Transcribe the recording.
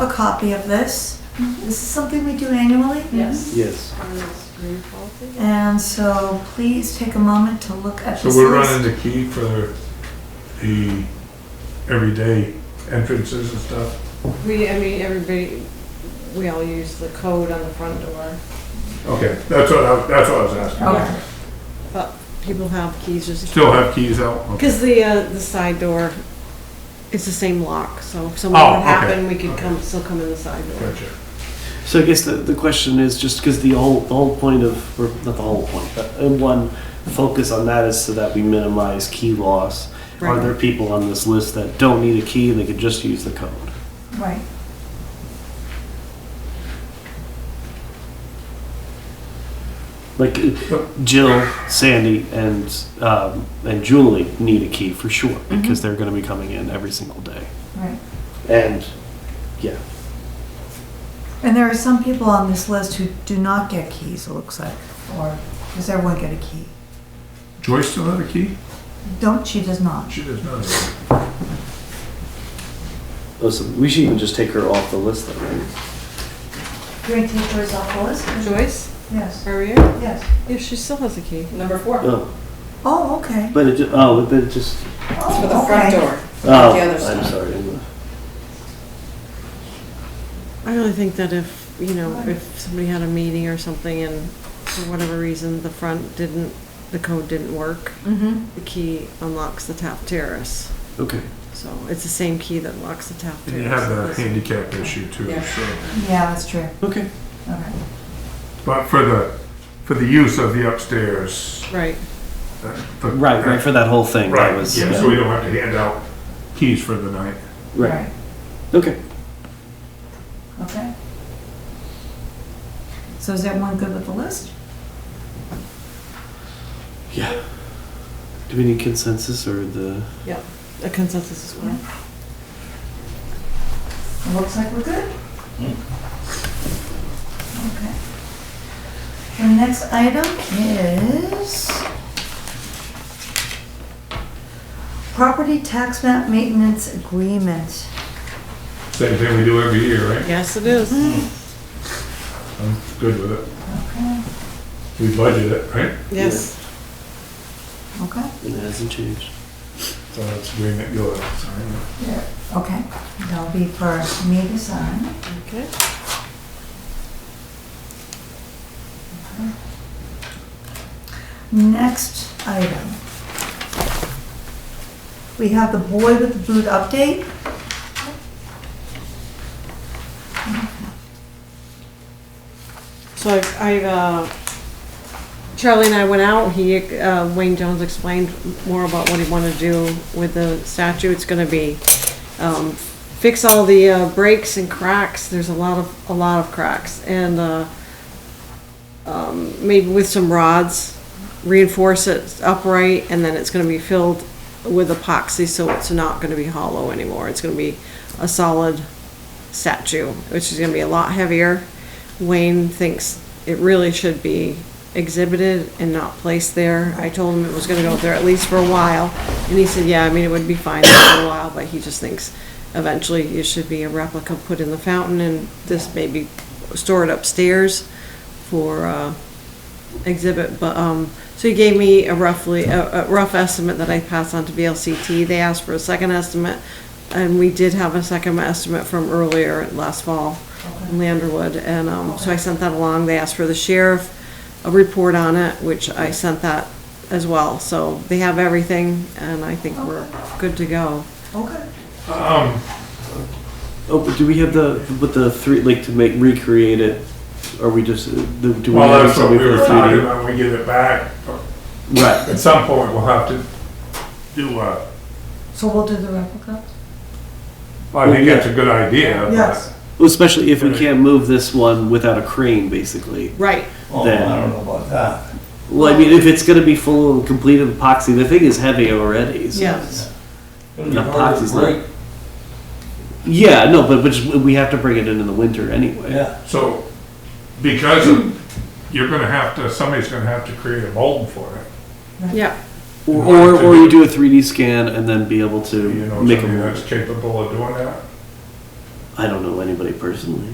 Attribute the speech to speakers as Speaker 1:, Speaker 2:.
Speaker 1: a copy of this. This is something we do annually.
Speaker 2: Yes.
Speaker 3: Yes.
Speaker 1: And so please take a moment to look at
Speaker 4: So
Speaker 1: this
Speaker 4: we're
Speaker 1: list.
Speaker 4: running the key for the everyday entrances and stuff?
Speaker 2: We, I mean, everybody, we all use the code on the front door,
Speaker 4: Okay, that's what I, that's what I was asking.
Speaker 1: Okay.
Speaker 2: but people have keys just,
Speaker 4: Still have keys out? Okay.
Speaker 2: because the, uh, the side door is the same lock, so if something
Speaker 4: Oh,
Speaker 2: would happen,
Speaker 4: okay.
Speaker 2: we could come, still come in the side door.
Speaker 4: Gotcha.
Speaker 3: So I guess the, the question is just because the whole the whole point of or not the whole point, but uh, one focus on that is so that we minimize key loss. Are
Speaker 2: Right.
Speaker 3: there people on this list that don't need a key and they could just use the code?
Speaker 1: Right.
Speaker 3: Like uh, Jill, Sandy, and um, and Julie need a key for sure
Speaker 5: Mm-hmm.
Speaker 3: because they're going to be coming in every single day.
Speaker 1: Right.
Speaker 3: And yeah,
Speaker 1: And there are some people on this list who do not get keys, it looks like. Or does everyone get a key?
Speaker 4: Joyce still have a key?
Speaker 1: Don't, she does not.
Speaker 4: She does not.
Speaker 3: listen, we should even just take her off the list then. Right?
Speaker 1: Do you want to take yours off the list?
Speaker 2: Joyce,
Speaker 1: Yes,
Speaker 2: are we here?
Speaker 1: yes.
Speaker 2: Yeah, she still has a key.
Speaker 5: Number four, it's
Speaker 3: Oh,
Speaker 1: Oh, okay.
Speaker 3: but it ju- oh, but it just
Speaker 5: for the front door.
Speaker 3: oh,
Speaker 5: The other
Speaker 3: I'm
Speaker 5: side.
Speaker 3: sorry. I'm-
Speaker 2: I really think that if, you know, if somebody had a meeting or something and for whatever reason, the front didn't, the code didn't work,
Speaker 1: Mm-hmm.
Speaker 2: the key unlocks the top terrace.
Speaker 3: Okay.
Speaker 2: So it's the same key that locks the top
Speaker 4: And
Speaker 2: terrace.
Speaker 4: you have the handicap issue too,
Speaker 5: Yeah.
Speaker 4: so.
Speaker 1: Yeah, that's true.
Speaker 3: Okay.
Speaker 1: All right.
Speaker 4: But for the, for the use of the upstairs.
Speaker 2: Right,
Speaker 4: that- the-
Speaker 3: Right, right, for that whole thing.
Speaker 4: Right,
Speaker 3: That was,
Speaker 4: yeah,
Speaker 3: yeah.
Speaker 4: so we don't have to hand out keys for the night.
Speaker 3: Right. Okay.
Speaker 1: Okay. So is everyone good with the list?
Speaker 3: Yeah. Do we need consensus or the?
Speaker 2: a consensus is fine.
Speaker 1: It looks like we're good. Okay. The next item is property tax map maintenance agreement.
Speaker 4: Same thing we do every year, right?
Speaker 2: Yes, it is.
Speaker 4: Mm-hmm. I'm good with it.
Speaker 1: Okay.
Speaker 4: We budget it, right?
Speaker 2: Yes.
Speaker 1: Okay.
Speaker 3: It hasn't changed.
Speaker 4: So that's agreement you'll have to sign.
Speaker 1: Okay, that'll be for me to sign.
Speaker 2: Okay.
Speaker 1: Next item. We have the boy with the boot update.
Speaker 2: So I've- I, uh, Charlie and I went out, he, uh, Wayne Jones explained more about what he wanted to do with the statue. It's gonna be, um, fix all the uh, breaks and cracks. There's a lot of, a lot of cracks. And, uh, um, maybe with some rods, reinforce it upright, and then it's gonna be filled with epoxy, so it's not gonna be hollow anymore. It's gonna be a solid statue, which is gonna be a lot heavier. Wayne thinks it really should be exhibited and not placed there. I told him it was gonna go there at least for a while, and he said, yeah, I mean, it would be fine for a while, but he just thinks eventually it should be a replica put in the fountain, and this maybe stored upstairs for uh, exhibit, but, um, so he gave me a roughly, a a rough estimate that I passed on to VLCT. They asked for a second estimate, and we did have a second estimate from earlier last fall in Landerwood, and um, so I sent that along. They asked for the sheriff, a report on it, which I sent that as well. So they have everything, and I think we're good to go.
Speaker 1: Okay.
Speaker 4: Um,
Speaker 3: Oh, but do we have the with the three like to make recreate it? Are we just uh, the, do we
Speaker 4: well,
Speaker 3: have
Speaker 4: that's what we
Speaker 3: something
Speaker 4: were
Speaker 3: for
Speaker 4: talking
Speaker 3: 3D?
Speaker 4: about, when we give it back.
Speaker 3: Right.
Speaker 4: At some point, we'll have to do uh, a,
Speaker 1: So we'll do the replica?
Speaker 4: well, I think that's a good idea. but-
Speaker 1: Yes.
Speaker 3: Well, especially if we
Speaker 4: Right.
Speaker 3: can't move this one without a crane, basically.
Speaker 2: Right.
Speaker 6: Oh,
Speaker 3: Then-
Speaker 6: I don't know about that.
Speaker 3: Well, I mean, if it's gonna be full and complete of epoxy, the thing is heavy already. So.
Speaker 2: Yes.
Speaker 6: It'll be
Speaker 3: The
Speaker 6: hard to
Speaker 3: box is like-
Speaker 6: break.
Speaker 3: Yeah. No, but but just, we have to bring it in in the winter anyway.
Speaker 6: Yeah,
Speaker 4: So, because of, you're gonna have to, somebody's gonna have to create a mold for it,
Speaker 2: Yeah.
Speaker 3: Or, or or you do a 3D scan and then be able to
Speaker 4: you know,
Speaker 3: make a
Speaker 4: somebody
Speaker 3: mold.
Speaker 4: that's capable of doing that.
Speaker 3: I don't know anybody personally.